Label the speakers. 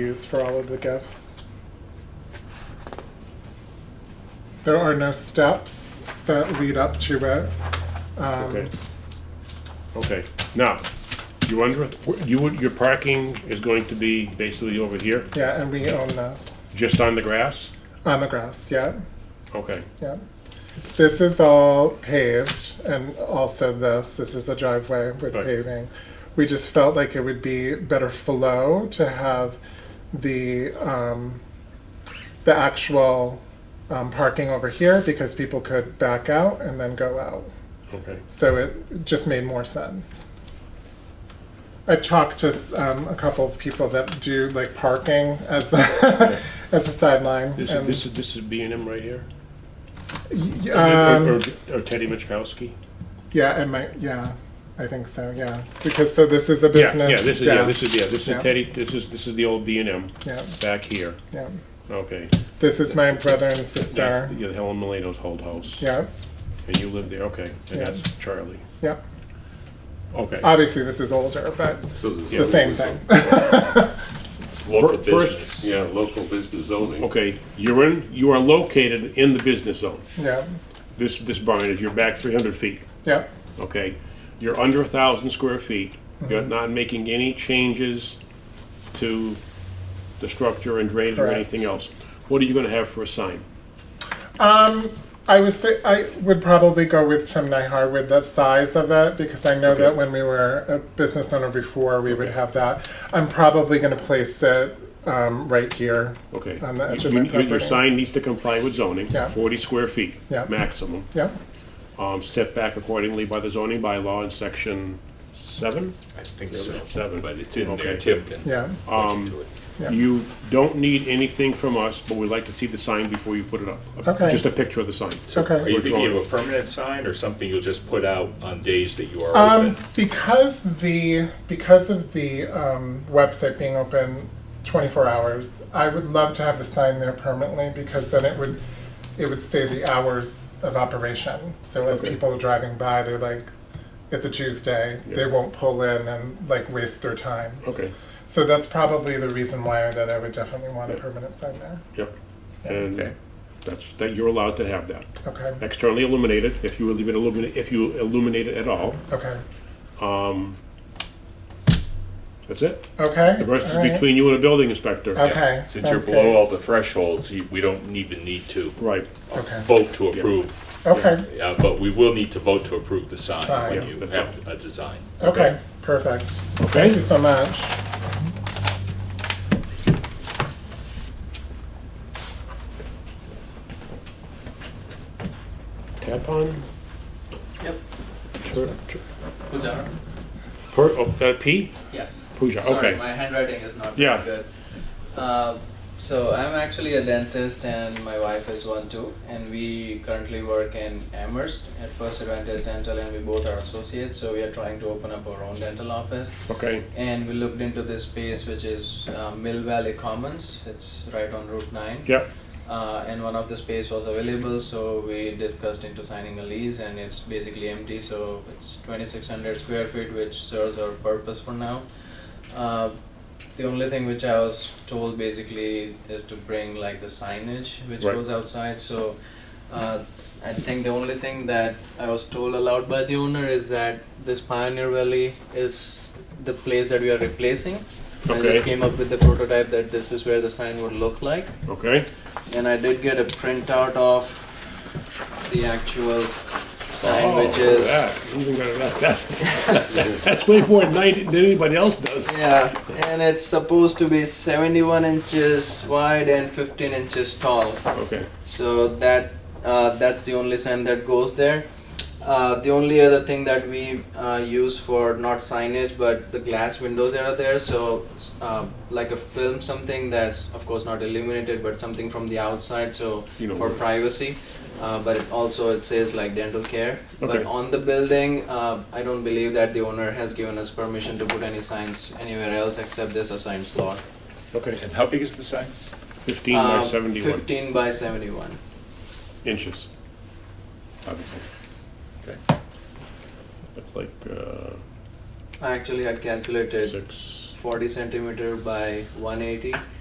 Speaker 1: used for all of the gifts. There are no steps that lead up to it. Um,
Speaker 2: Okay. Okay, now, you're under, you, would- your parking is going to be basically over here,
Speaker 1: Yeah, and we own this
Speaker 2: just on the grass?
Speaker 1: on the grass. Yeah,
Speaker 2: Okay,
Speaker 1: yeah. This is all paved, and also this. This is a driveway with
Speaker 2: Right.
Speaker 1: paving. We just felt like it would be better flow to have the um, the actual um, parking over here because people could back out and then go out.
Speaker 2: okay.
Speaker 1: So it just made more sense. I've talked to um, a couple of people that do like parking as a, as a sideline.
Speaker 2: This, is-
Speaker 1: and,
Speaker 2: this is, this is B and M right here?
Speaker 1: y- um,
Speaker 2: Or or Teddy Michkowski?
Speaker 1: yeah, and my yeah, I think so. Yeah, because so this is a
Speaker 2: Yeah,
Speaker 1: business.
Speaker 2: yeah, this is, yeah, this is, yeah, this
Speaker 1: Yeah.
Speaker 2: is Teddy, this is, this is the old B and M,
Speaker 1: yeah,
Speaker 2: back here,
Speaker 1: yeah.
Speaker 2: okay.
Speaker 1: This is my brother and sister.
Speaker 2: That's- Yeah, Helen Molino's old house.
Speaker 1: Yeah,
Speaker 2: And you live there, okay, and
Speaker 1: Yeah. Uh,
Speaker 2: that's Charlie,
Speaker 1: yeah.
Speaker 2: okay.
Speaker 1: Obviously, this is older, but
Speaker 3: So the
Speaker 1: it's the same thing.
Speaker 3: Local
Speaker 2: Fir- first-
Speaker 3: business, yeah, local business zoning.
Speaker 2: Okay, you're in, you are located in the business zone.
Speaker 1: yeah,
Speaker 2: This, this barn is, you're back three hundred feet.
Speaker 1: yeah,
Speaker 2: okay? You're under a thousand square feet, you're
Speaker 1: Mm-hmm.
Speaker 2: not making any changes to the structure and drainage or
Speaker 1: Correct.
Speaker 2: anything else. What are you gonna have for a sign?
Speaker 1: I was th- I would probably go with Tim Nihar with the size of it because I know that when we were a business owner before, we would have that. I'm probably going to place it um, right here.
Speaker 2: Okay.
Speaker 1: On the edge of
Speaker 2: You-
Speaker 1: my
Speaker 2: you- Your
Speaker 1: property.
Speaker 2: sign needs to comply with zoning,
Speaker 1: Yeah.
Speaker 2: forty square feet,
Speaker 1: Yeah.
Speaker 2: maximum.
Speaker 1: Yep.
Speaker 2: Um, set back accordingly by the zoning bylaw in section seven?
Speaker 4: I think so,
Speaker 2: Seven.
Speaker 4: but it's in
Speaker 2: Okay.
Speaker 4: there, Tim can
Speaker 1: Yeah.
Speaker 4: point you to it.
Speaker 1: Yeah.
Speaker 2: You don't need anything from us, but we'd like to see the sign before you put it up.
Speaker 1: Okay.
Speaker 2: Just a picture of the sign.
Speaker 4: Are
Speaker 1: Okay.
Speaker 4: you thinking of a permanent sign or something you'll just put out on days that you are
Speaker 1: Um,
Speaker 4: open?
Speaker 1: because the because of the um, website being open 24 hours, I would love to have the sign there permanently because then it would it would say the hours of operation. So as
Speaker 2: Okay.
Speaker 1: people are driving by, they're like, "It's a Tuesday." They
Speaker 2: Yeah. Oh.
Speaker 1: won't pull in and like waste their time.
Speaker 2: Okay.
Speaker 1: So that's probably the reason why that I would definitely want a permanent sign there.
Speaker 2: Yep.
Speaker 1: Yeah,
Speaker 2: And
Speaker 1: okay.
Speaker 2: that's, that you're allowed to have that.
Speaker 1: Okay.
Speaker 2: Externally illuminated, if you leave it illuminated, if you illuminate it at all,
Speaker 1: Okay.
Speaker 2: that's it.
Speaker 1: Okay.
Speaker 2: The rest is
Speaker 1: all right. Uh,
Speaker 2: between you and a building inspector.
Speaker 1: Okay.
Speaker 4: Since you're
Speaker 1: sounds good.
Speaker 4: below all the thresholds, you- we don't even need to
Speaker 2: Right,
Speaker 1: Okay.
Speaker 4: vote to approve,
Speaker 1: Okay.
Speaker 4: uh, but we will need to vote to approve the sign
Speaker 1: Sign.
Speaker 4: when
Speaker 2: Yeah,
Speaker 4: you
Speaker 2: that's
Speaker 4: have a design.
Speaker 1: Okay. Perfect. Thank you
Speaker 2: okay?
Speaker 1: so much.
Speaker 2: Tap on,
Speaker 5: Yep.
Speaker 2: tur- tur-
Speaker 5: Puja.
Speaker 2: per, oh, that P?
Speaker 5: Yes.
Speaker 2: Pooja,
Speaker 5: Sorry,
Speaker 2: okay.
Speaker 5: my handwriting is not
Speaker 2: Yeah.
Speaker 5: very good. Um, so I'm actually a dentist, and my wife is one too. And we currently work in Amherst at First Advantage Dental, and we both are associates. So we are trying to open up our own dental office.
Speaker 2: Okay,
Speaker 5: And we looked into this space, which is uh, Mill Valley Commons. It's right on Route Nine.
Speaker 2: yep,
Speaker 5: uh, and one of the space was available so we discussed into signing a lease and it's basically empty so it's 2600 square feet which serves our purpose for now uh, the only thing which i was told basically is to bring like the signage which
Speaker 2: Right.
Speaker 5: goes outside so uh, i think the only thing that i was told allowed by the owner is that this pioneer valley is the place that we are replacing i
Speaker 2: Okay.
Speaker 5: just came up with the prototype that this is where the sign would look like
Speaker 2: okay,
Speaker 5: and I did get a printout of the actual
Speaker 2: Oh,
Speaker 5: sign, which is
Speaker 2: that, even got it up. That- That's way more than I- than anybody else does.
Speaker 5: yeah, and it's supposed to be 71 inches wide and 15 inches tall.
Speaker 2: Okay,
Speaker 5: So that uh, that's the only sign that goes there. Uh, the only other thing that we uh, use for not signage but the glass windows that are there, so s- uh, like a film, something that's of course not illuminated but something from the outside, so
Speaker 2: You know
Speaker 5: for
Speaker 2: what.
Speaker 5: privacy. Uh, but it also it says like dental care.
Speaker 2: Okay.
Speaker 5: But on the building, uh, I don't believe that the owner has given us permission to put any signs anywhere else except this assigned slot.
Speaker 2: okay,
Speaker 4: And how big is the sign?
Speaker 2: fifteen by
Speaker 5: Um,
Speaker 2: seventy-one
Speaker 5: Fifteen by seventy-one.
Speaker 2: inches, obviously.
Speaker 4: Okay.
Speaker 2: That's like, uh,
Speaker 5: I actually had calculated
Speaker 2: six,
Speaker 5: 40 centimeter by 180